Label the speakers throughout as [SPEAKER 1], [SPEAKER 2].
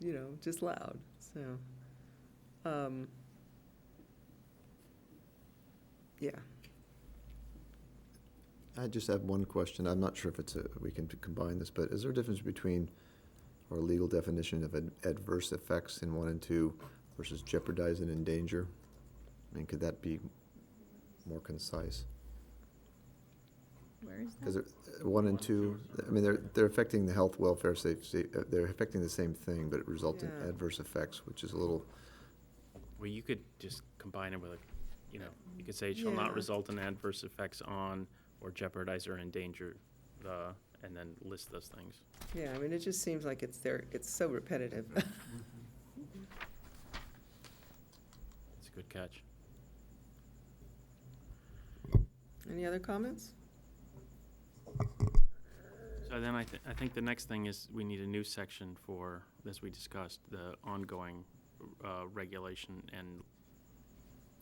[SPEAKER 1] you know, just loud, so. um, Yeah,
[SPEAKER 2] I just have one question. I'm not sure if it's a, we can combine this, but is there a difference between our legal definition of ad- adverse effects in one and two versus jeopardize and endanger? I mean, could that be more concise?
[SPEAKER 3] Where is
[SPEAKER 2] Because one and two, I mean, they're, they're affecting the health, welfare, safety, uh, they're affecting the same thing, but it results in
[SPEAKER 1] Yeah.
[SPEAKER 2] adverse effects, which is a little,
[SPEAKER 4] Well, you could just combine it with, a, you know, you could say shall
[SPEAKER 1] Yeah.
[SPEAKER 4] not result in adverse effects on or jeopardize or endanger the, and then list those things.
[SPEAKER 1] yeah, I mean, it just seems like it's there, it's so repetitive.
[SPEAKER 4] It's a good catch.
[SPEAKER 1] Any other comments?
[SPEAKER 4] So then I, thi- I think the next thing is we need a new section for, as we discussed, the ongoing uh, regulation and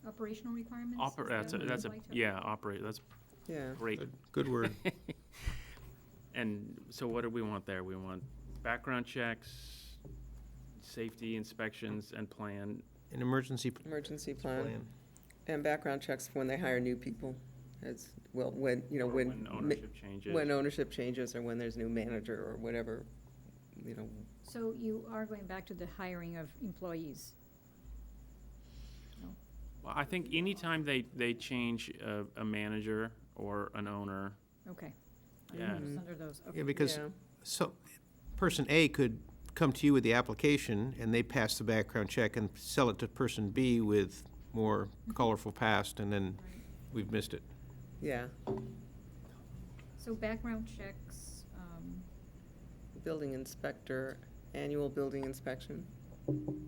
[SPEAKER 3] Operational requirements? Is
[SPEAKER 4] oper,
[SPEAKER 3] that
[SPEAKER 4] that's a,
[SPEAKER 3] what you'd
[SPEAKER 4] that's a,
[SPEAKER 3] like to-
[SPEAKER 4] yeah, operate, that's
[SPEAKER 1] Yeah,
[SPEAKER 4] great.
[SPEAKER 5] Good word.
[SPEAKER 4] And so what do we want there? We want background checks, safety inspections and plan,
[SPEAKER 5] An emergency p-
[SPEAKER 1] emergency plan
[SPEAKER 5] plan.
[SPEAKER 1] and background checks when they hire new people. As, well, when, you know,
[SPEAKER 4] or
[SPEAKER 1] when.
[SPEAKER 4] when
[SPEAKER 1] ma-
[SPEAKER 4] ownership changes.
[SPEAKER 1] When ownership changes or when there's new manager or whatever, you know,
[SPEAKER 3] So you are going back to the hiring of employees?
[SPEAKER 4] Well, I think anytime they, they change a, a manager or an owner,
[SPEAKER 3] Okay. I
[SPEAKER 4] Yeah.
[SPEAKER 3] understand Under those, okay.
[SPEAKER 5] Yeah, because
[SPEAKER 1] yeah,
[SPEAKER 5] so, person A could come to you with the application, and they pass the background check and sell it to person B with more colorful past, and then
[SPEAKER 3] Right.
[SPEAKER 5] we've missed it.
[SPEAKER 1] yeah,
[SPEAKER 3] So background checks, um,
[SPEAKER 1] building inspector, annual building inspection,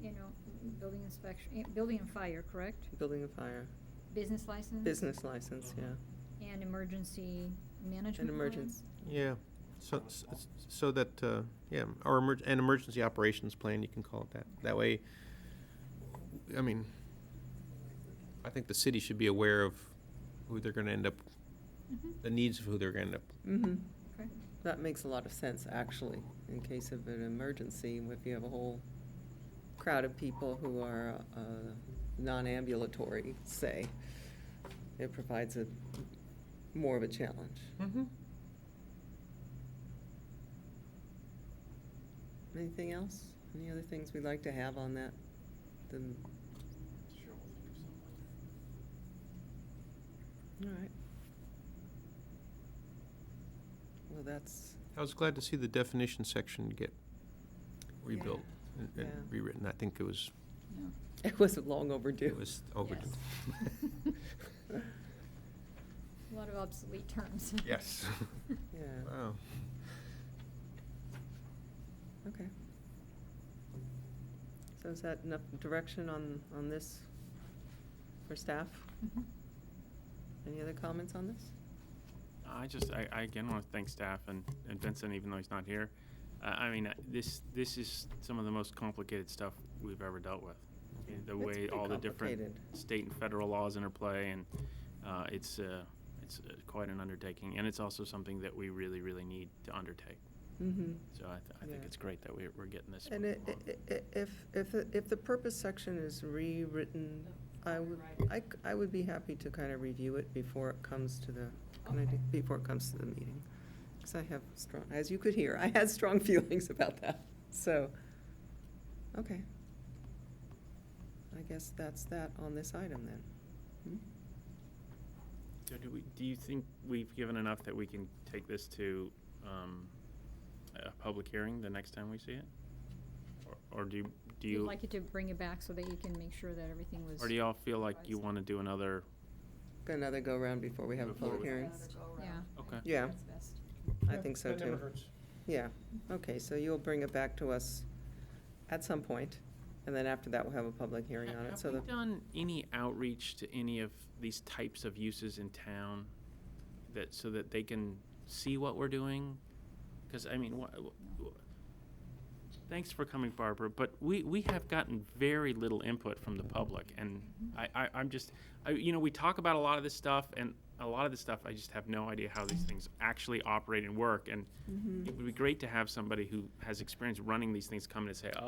[SPEAKER 3] you know, building inspection, eh, building and fire, correct?
[SPEAKER 1] building and fire,
[SPEAKER 3] Business license?
[SPEAKER 1] business license, yeah.
[SPEAKER 3] And emergency management plan?
[SPEAKER 1] emergency-
[SPEAKER 5] Yeah, so, s- s- so that, uh, yeah, or emerg, an emergency operations plan, you can call it that. That way, I mean, I think the city should be aware of who they're gonna end up,
[SPEAKER 3] Mhm.
[SPEAKER 5] the needs of who they're gonna end up
[SPEAKER 1] Mm-hmm.
[SPEAKER 3] Okay.
[SPEAKER 1] That makes a lot of sense, actually, in case of an emergency, if you have a whole crowd of people who are uh, non-ambulatory, say, it provides a, more of a challenge. Anything else? Any other things we'd like to have on that? The- All right. Well, that's,
[SPEAKER 5] I was glad to see the definition section get rebuilt and-
[SPEAKER 1] Yeah.
[SPEAKER 5] and rewritten. I think it was,
[SPEAKER 3] No.
[SPEAKER 1] it was long overdue.
[SPEAKER 5] it was overdue.
[SPEAKER 3] Yes. A lot of obsolete terms.
[SPEAKER 5] Yes.
[SPEAKER 1] Yeah,
[SPEAKER 5] Wow.
[SPEAKER 1] okay. So is that enough direction on, on this for staff?
[SPEAKER 3] Mhm.
[SPEAKER 1] Any other comments on this?
[SPEAKER 4] I just, I, I again want to thank staff and, and Vincent, even though he's not here. Uh, I mean, uh, this, this is some of the most complicated stuff we've ever dealt with. Uh, The
[SPEAKER 1] It's
[SPEAKER 4] way
[SPEAKER 1] pretty
[SPEAKER 4] all the different
[SPEAKER 1] complicated.
[SPEAKER 4] state and federal laws interplay and, uh, it's, uh, it's uh, quite an undertaking. And it's also something that we really, really need to undertake.
[SPEAKER 1] Mm-hmm.
[SPEAKER 4] So I, th- I think
[SPEAKER 1] Yeah.
[SPEAKER 4] it's great that we're, we're getting this.
[SPEAKER 1] And
[SPEAKER 4] moving
[SPEAKER 1] it-
[SPEAKER 4] along.
[SPEAKER 1] i- i- if, if, if the purpose section is rewritten, I would, I, c- I would be happy to kind of review it before it comes to the, can I do- before it comes to the meeting. Because I have strong, as you could hear, I had strong feelings about that, so, okay. I guess that's that on this item then. Hmm?
[SPEAKER 4] So do we, do you think we've given enough that we can take this to, um, a public hearing the next time we see it? Or- Or do, you- do
[SPEAKER 3] We'd
[SPEAKER 4] you,
[SPEAKER 3] like you to bring it back so that you can make sure that everything was.
[SPEAKER 4] or do y'all feel like you
[SPEAKER 3] Right.
[SPEAKER 4] wanna do another,
[SPEAKER 1] Got Another go-around before we have a
[SPEAKER 4] Before
[SPEAKER 1] public
[SPEAKER 4] we-
[SPEAKER 1] hearing?
[SPEAKER 3] Yeah.
[SPEAKER 4] okay,
[SPEAKER 1] Yeah,
[SPEAKER 3] That's best.
[SPEAKER 1] I think so too. Yeah, okay, so you'll bring it back to us at some point, and then after that, we'll have a public hearing on it,
[SPEAKER 4] Have
[SPEAKER 1] so
[SPEAKER 4] we
[SPEAKER 1] the,
[SPEAKER 4] done any outreach to any of these types of uses in town that, so that they can see what we're doing? Because, I mean, wha- wha- wha- thanks for coming, Barbara, but we, we have gotten very little input from the public, and I, I, I'm just, I, you know, we talk about a lot of this stuff, and a lot of this stuff, I just have no idea how these things actually
[SPEAKER 1] Mm-hmm.
[SPEAKER 4] operate and work, and it would be great to have somebody who has experience running these things come in and say, oh,